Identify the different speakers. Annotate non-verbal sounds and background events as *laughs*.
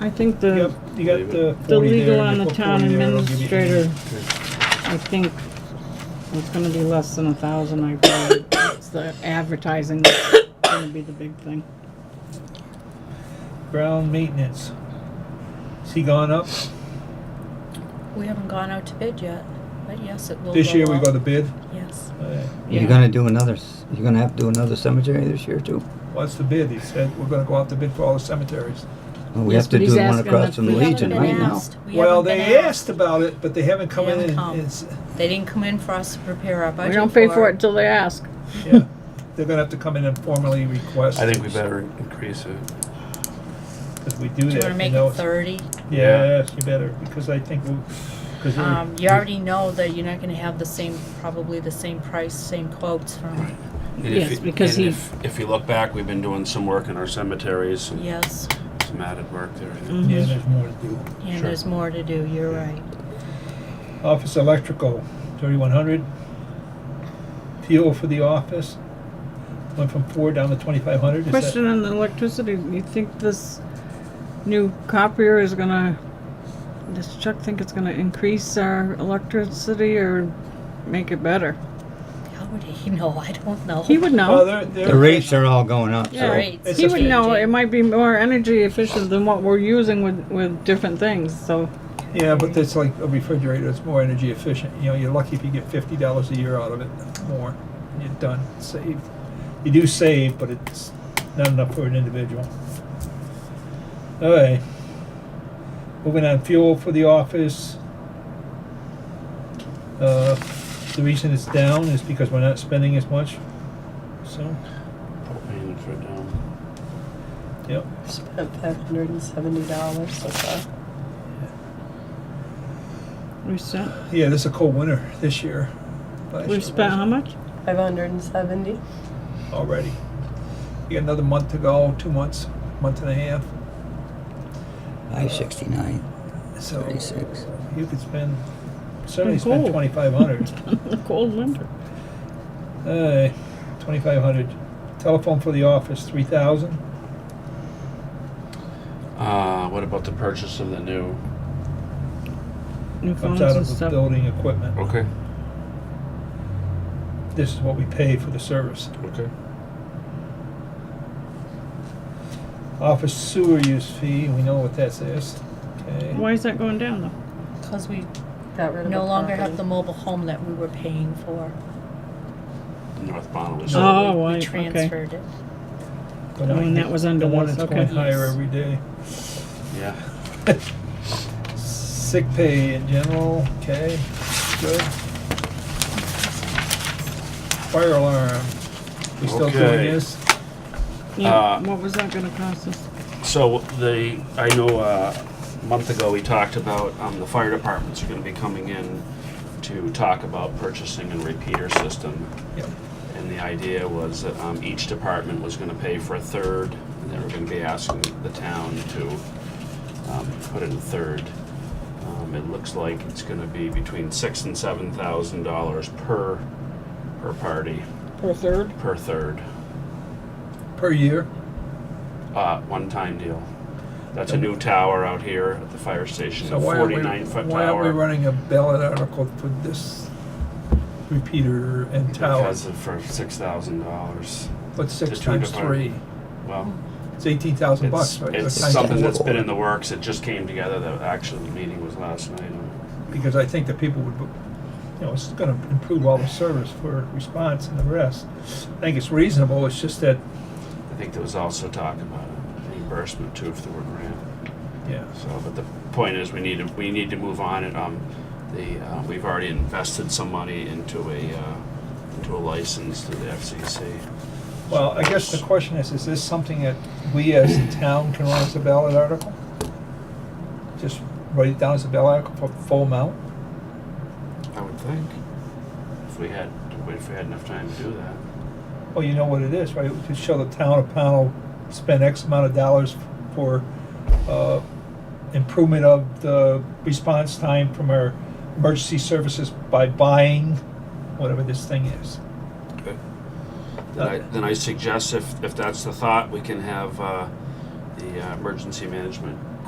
Speaker 1: I think the,
Speaker 2: Yep, you got the
Speaker 1: the
Speaker 2: forty there.
Speaker 1: legal
Speaker 2: and
Speaker 1: on
Speaker 2: you
Speaker 1: the
Speaker 2: put
Speaker 1: town
Speaker 2: 40 there, it'll give you
Speaker 1: administrator,
Speaker 2: 80.
Speaker 1: I think it's gonna be less than a thousand, I believe. It's the advertising that's gonna be the big thing.
Speaker 2: Ground maintenance. Has he gone up?
Speaker 3: We haven't gone out to bid yet, but yes, it will
Speaker 2: This
Speaker 3: go
Speaker 2: year we
Speaker 3: up.
Speaker 2: got a bid.
Speaker 3: Yes.
Speaker 2: Uh,
Speaker 1: Yeah.
Speaker 4: You're gonna do another, c- you're gonna have to do another cemetery this year too?
Speaker 2: What's the bid? He said, we're gonna go out to bid for all the cemeteries.
Speaker 4: Well, we
Speaker 1: Yes,
Speaker 4: have to
Speaker 1: but he's
Speaker 4: do the one
Speaker 1: asking
Speaker 4: across
Speaker 1: if
Speaker 4: from
Speaker 1: we
Speaker 3: We
Speaker 1: haven't
Speaker 4: Legion
Speaker 3: haven't
Speaker 4: right
Speaker 3: been
Speaker 4: now.
Speaker 3: asked. We
Speaker 2: Well,
Speaker 3: haven't
Speaker 2: they
Speaker 3: been
Speaker 2: asked about it, but they haven't come
Speaker 3: They
Speaker 2: in
Speaker 3: haven't
Speaker 2: and,
Speaker 3: come.
Speaker 2: it's-
Speaker 3: They didn't come in for us to prepare our budget.
Speaker 1: We don't pay for it till they ask.
Speaker 2: yeah. They're gonna have to come in and formally request.
Speaker 5: I think we better increase it.
Speaker 2: Because we do
Speaker 3: Do you
Speaker 2: that,
Speaker 3: wanna
Speaker 2: you
Speaker 3: make
Speaker 2: know.
Speaker 3: it
Speaker 2: it's-
Speaker 3: thirty?
Speaker 2: Yes, you better, because I think we, because
Speaker 3: Um, you already know that you're not gonna have the same, probably the same price, same quotes from,
Speaker 5: And if
Speaker 1: Yes,
Speaker 5: it-
Speaker 1: because
Speaker 5: and
Speaker 1: he-
Speaker 5: If, if you look back, we've been doing some work in our cemeteries, and
Speaker 3: yes,
Speaker 5: some added work there.
Speaker 1: Mm-hmm.
Speaker 2: Yeah, there's more to do.
Speaker 3: and
Speaker 5: Sure.
Speaker 3: there's more to do, you're right.
Speaker 2: Office electrical, thirty-one hundred. PO for the office, went from four down to twenty-five hundred.
Speaker 1: Question on the electricity, you think this new copier is gonna, does Chuck think it's gonna increase our electricity or make it better?
Speaker 3: How would he *laughs* know? I don't know.
Speaker 1: He would
Speaker 2: Oh,
Speaker 1: know.
Speaker 2: they're, they're.
Speaker 4: The rates are all going up,
Speaker 1: Yeah.
Speaker 4: so.
Speaker 3: Right.
Speaker 2: It's
Speaker 1: He
Speaker 2: just
Speaker 1: would know,
Speaker 3: changing.
Speaker 1: it might be more energy efficient than what we're using with, with different things, so.
Speaker 2: Yeah, but that's like a refrigerator, it's more energy efficient, you know, you're lucky if you get fifty dollars a year out of it, more, and you're done, saved. You do save, but it's not enough for an individual. Alright. Moving on, fuel for the office. Uh, the reason it's down is because we're not spending as much, so,
Speaker 5: Propane for down.
Speaker 2: yep.
Speaker 6: Spent five hundred and seventy dollars so far.
Speaker 1: We spent,
Speaker 2: Yeah, this is a cold winter this year. Last year
Speaker 1: we spent
Speaker 2: was-
Speaker 1: how much?
Speaker 6: Five hundred and seventy.
Speaker 2: already. You got another month to go, two months, month and a half.
Speaker 4: Five sixty-nine,
Speaker 2: So
Speaker 4: thirty-six.
Speaker 2: you could spend certainly
Speaker 1: It's
Speaker 2: spend
Speaker 1: cold.
Speaker 2: twenty five
Speaker 1: *laughs*
Speaker 2: hundred.
Speaker 1: The cold winter.
Speaker 2: uh, twenty five hundred. Telephone for the office three thousand.
Speaker 5: Uh, what about the purchase of the new?
Speaker 1: New phones
Speaker 2: Comes out
Speaker 1: and
Speaker 2: of the
Speaker 1: stuff.
Speaker 2: building equipment.
Speaker 5: Okay,
Speaker 2: This is what we pay for the service.
Speaker 5: okay.
Speaker 2: Office sewer use fee. We know what that is. Okay.
Speaker 1: Why is that going down though?
Speaker 3: Cause we
Speaker 6: Got rid of
Speaker 3: no
Speaker 6: a
Speaker 3: longer have the
Speaker 6: property.
Speaker 3: mobile home that we were paying for.
Speaker 5: North Bonneville.
Speaker 3: So
Speaker 1: Oh,
Speaker 3: we-
Speaker 1: right,
Speaker 3: We
Speaker 1: okay.
Speaker 3: transferred it.
Speaker 2: But
Speaker 1: Oh,
Speaker 2: I
Speaker 1: and that
Speaker 2: think
Speaker 1: was under
Speaker 2: the one
Speaker 1: this,
Speaker 2: that's
Speaker 1: okay.
Speaker 2: going higher
Speaker 3: Yes.
Speaker 2: every day.
Speaker 5: Yeah.
Speaker 2: Sick pay in general. Okay. Good. Fire alarm. We still
Speaker 5: Okay.
Speaker 2: doing this?
Speaker 1: Yeah,
Speaker 5: Uh,
Speaker 1: what was that gonna cost us?
Speaker 5: So the, I know uh, a month ago, we talked about um, the fire departments are gonna be coming in to talk about purchasing a repeater system.
Speaker 2: Yep.
Speaker 5: And the idea was that um, each department was gonna pay for a third, and they were gonna be asking the town to um, put in a third. Um, It looks like it's gonna be between six and seven thousand dollars per, per party,
Speaker 1: Per third?
Speaker 5: per third,
Speaker 2: Per year?
Speaker 5: uh, one-time deal. That's a new tower out here at the fire station,
Speaker 2: So
Speaker 5: a
Speaker 2: why aren't we,
Speaker 5: forty-nine foot
Speaker 2: why aren't we
Speaker 5: tower.
Speaker 2: running a ballot article for this repeater and tower?
Speaker 5: Because of, for six thousand dollars,
Speaker 2: What's six
Speaker 5: just trying to
Speaker 2: times
Speaker 5: find-
Speaker 2: three?
Speaker 5: well.
Speaker 2: It's eighteen thousand bucks,
Speaker 5: It's,
Speaker 2: right?
Speaker 5: it's
Speaker 2: Or times
Speaker 5: something
Speaker 2: four.
Speaker 5: that's been in the works, it just came together, the actual meeting was last night.
Speaker 2: Because I think the people would, you know, it's gonna improve all the service for response and the rest. I think it's reasonable, it's just that,
Speaker 5: I think there was also talk about reimbursement too if there were grant,
Speaker 2: yeah,
Speaker 5: so, but the point is, we need to, we need to move on and, um, the, uh, we've already invested some money into a, uh, into a license through the FCC.
Speaker 2: well, I guess the question is, is this something that we as a town can run as a ballot article? Just write it down as a ballot article for full amount?
Speaker 5: I would think, if we had, if we had enough time to do that.
Speaker 2: Well, you know what it is, right? To show the town of panel spent X amount of dollars for uh, improvement of the response time from our emergency services by buying whatever this thing is.
Speaker 5: Then I, then I suggest if, if that's the thought, we can have, uh, the uh, emergency management